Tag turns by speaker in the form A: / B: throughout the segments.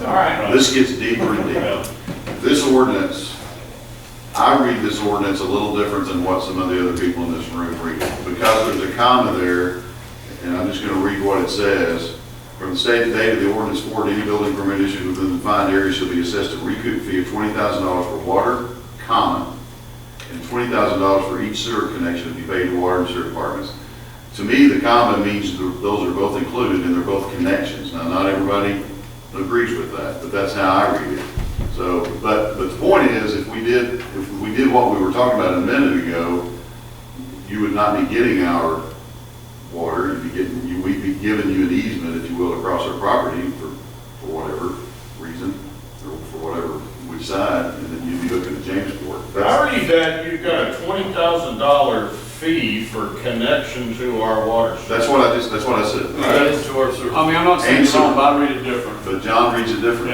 A: All right.
B: This gets deeper and deeper. This ordinance, I read this ordinance a little different than what some of the other people in this room read. Because there's a comma there, and I'm just gonna read what it says. From the state date of the ordinance forward, any building permit issued within the defined area shall be assessed a recoup fee of twenty thousand dollars for water, common, and twenty thousand dollars for each sewer connection to be paid to water and sewer departments. To me, the common means th- those are both included and they're both connections. Now, not everybody agrees with that, but that's how I read it. So, but, but the point is, if we did, if we did what we were talking about a minute ago, you would not be getting our water, you'd be getting, you, we'd be giving you an easement, if you will, across our property for, for whatever reason, or for whatever we decide, and then you'd be looking at Jamesport. That's-
A: I read that you've got a twenty thousand dollar fee for connection to our water system.
B: That's what I just, that's what I said.
A: That is to our sewer.
C: I mean, I'm not saying it's wrong, but I read it different.
B: But John reads it differently.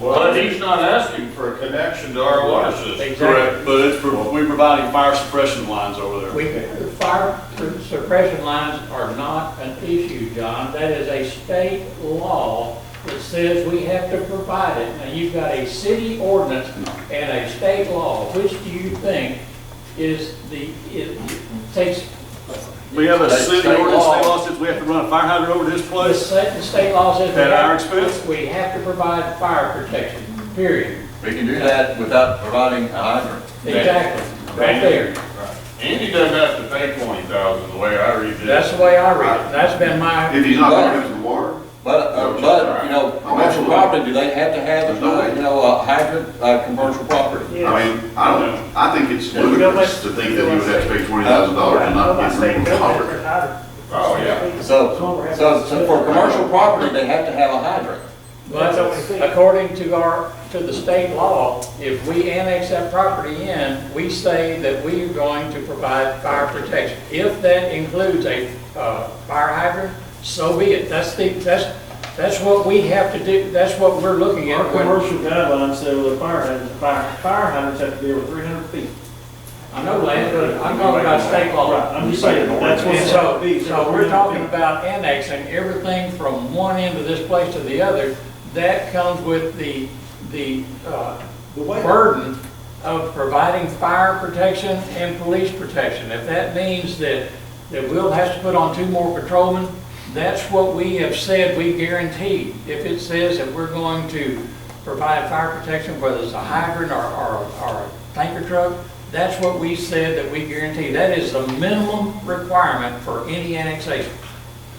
A: Well, he's not asking for a connection to our water system.
C: Correct, but it's, for- we're providing fire suppression lines over there.
D: We, fire suppression lines are not an issue, John. That is a state law that says we have to provide it. Now, you've got a city ordinance and a state law. Which do you think is the, it takes,
C: We have a
E: State-
C: city
E: state
C: ordinance,
E: law.
C: state law says we have to run a fire hydrant over this
D: the
C: place.
D: state, the state law says. we
C: At our
D: have-
C: expense?
D: We have to provide fire protection, period.
E: We can do that without providing a hydrant.
D: Exactly, right there.
A: Andy doesn't have to pay twenty thousand, the way I read this.
D: That's the way I read it. That's been my,
B: If he's not gonna give us the water,
E: But, uh, but, you know, commercial property, do they have to have, uh, you know, a hydrant, uh, commercial property?
B: I mean, I don't, I think it's ludicrous to think that he would have to pay twenty thousand dollars and not get real water.
A: Oh, yeah.
E: So, so, so for commercial property, they have to have a hydrant.
D: But according to our, to the state law, if we annex that property in, we say that we are going to provide fire protection. If that includes a uh, fire hydrant, so be it. That's the, that's, that's what we have to do, that's what we're looking
F: Our
D: at. when-
F: commercial guidelines say with a fire hydrant, fire, fire hydrants have to be over three hundred feet.
D: I know, Lance, but I'm talking about state law.
F: Right, I'm just saying, that's what
D: And
F: it's
D: so,
F: to be.
D: so we're talking about annexing everything from one end of this place to the other. That comes with the, the uh,
F: The way-
D: burden of providing fire protection and police protection. If that means that, that we'll have to put on two more patrolmen, that's what we have said we guarantee. If it says that we're going to provide fire protection, whether it's a hydrant or, or, or a tanker truck, that's what we said that we guarantee. That is the minimum requirement for any annexation.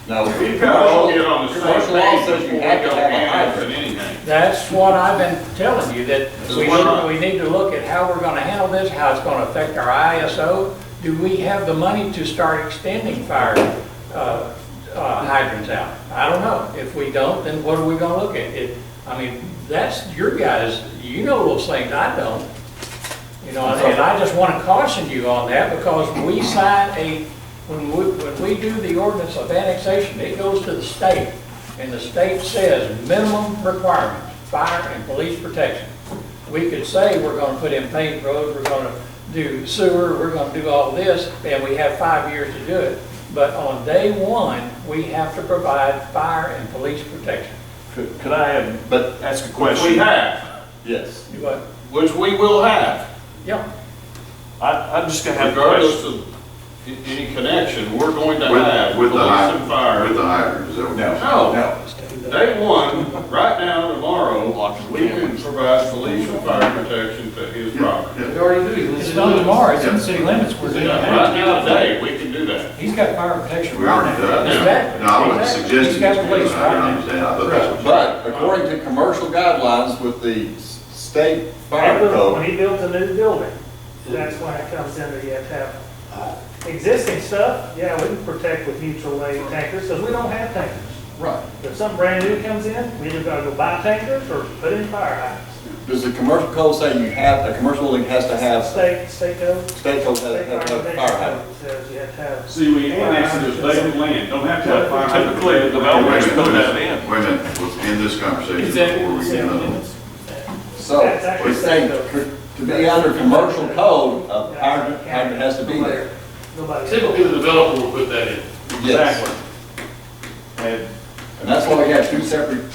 E: No.
A: We've got to all get on the
E: Commercial
A: same
E: law
A: page
E: says
A: before
E: you
A: we
E: have to
A: go
E: have a
A: annex and
E: hydrant.
A: anything.
D: That's what I've been telling you, that we, should- we need to look at how we're gonna handle this, how it's gonna affect our ISO. Do we have the money to start extending fire uh, uh, hydrants out? I don't know. If we don't, then what are we gonna look at? It, I mean, that's your guys, you know those things, I don't. You know, and I just want to caution you on that because we sign a, when we, when we do the ordinance of annexation, it goes to the state. And the state says minimum requirements, fire and police protection. We could say we're going to put in paved roads, we're going to do sewer, we're going to do all this, and we have five years to do it. But on day one, we have to provide fire and police protection.
C: Could could I have, but ask a
A: Which we
C: question?
A: have,
C: Yes.
D: You what?
A: which we will have,
D: Yeah,
C: I, I'm just gonna have a
A: regardless
C: question.
A: of a- any connection, we're going to have
B: With, with the
A: police
B: hydrant, with
A: and fire.
B: the hydrant, is that what?
E: No.
A: No,
E: No.
A: day one, right now, tomorrow, we can provide police and fire protection to his property.
B: Yeah,
G: already do.
F: It's not tomorrow, it's in the city limits, we're doing
A: Yeah,
F: that.
A: Right now, today, we can do that.
F: He's got fire protection.
B: We already do that.
D: Exactly.
B: No, I wasn't
D: Exactly.
B: suggesting.
D: He's got
B: it's
D: police
B: because I don't
D: right now.
B: understand. I thought that's what you-
E: But according to commercial guidelines with the s- state fire
H: When
E: code,
H: he builds a new building, that's when it comes in that you have to have. Existing stuff, yeah, we can protect with mutual aid tankers, because we don't have tankers.
E: right,
H: If something brand new comes in, we either gotta go buy tankers or put in fire hydrants.
E: does the commercial code say you have, a commercial building has to have,
H: State, state code.
E: state code has to
H: state
E: have
H: fire
E: a fire hydrant?
H: protection Says you have to have.
I: See, we annexed it as vacant land, don't have to have fire hydrant.
C: Typically, the
B: Wait a
C: developers
B: minute,
C: put that
B: wait
C: in.
B: a minute, wait a minute, let's end this conversation before we get on.
E: So, we say, to to be under commercial code, a hydrant, hydrant has to be there.
H: Nobody.
G: Typically, the developer will put that in.
E: Yes.
C: Exactly. And
E: And that's why we have two separate